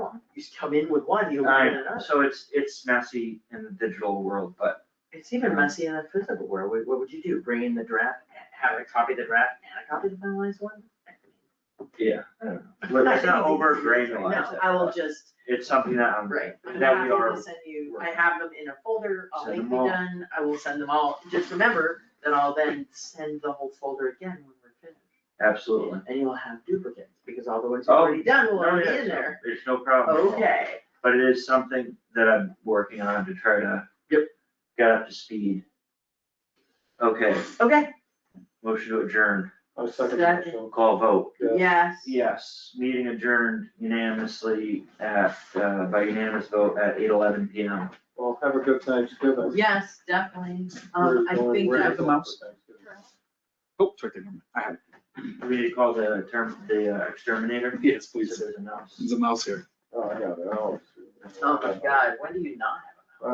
he's come in with one, he'll I- come in another. So it's, it's messy in the digital world, but It's Mm. even messy in the physical world, what, what would you do, bring in the draft, have a copy of the draft and a copy of the finalized one? yeah, I don't know. Let's not over granularize No, it, I will but just, it's something that I'm, right, I'm That happy we are to send you, I have them in a folder, I'll Send link me them all. done, I will send them all. Just remember that I'll then send the whole folder again when we're finished. absolutely. And you'll have duplicates, because all the ones you've Oh, already done will No, already yeah, be in there. Oh, There's no problem. at all. Okay, But it is something that I'm working on to try to. Yep. Get up to speed. Okay, okay, motion to adjourn, I second that, Second. call vote. Yeah. yes. Yes, meeting adjourned unanimously at, uh, by unanimous vote at eight eleven P M. well, have a good Thanksgiving. Yes, definitely, um, I We're think going that, the mouse? for Thanksgiving. Oh, it's right there. I have We need to call the term, the uh, exterminator. it. Yes, Please, please. there's a mouse. There's a mouse here. Oh, I got it, I always do. oh my god, when do you not have?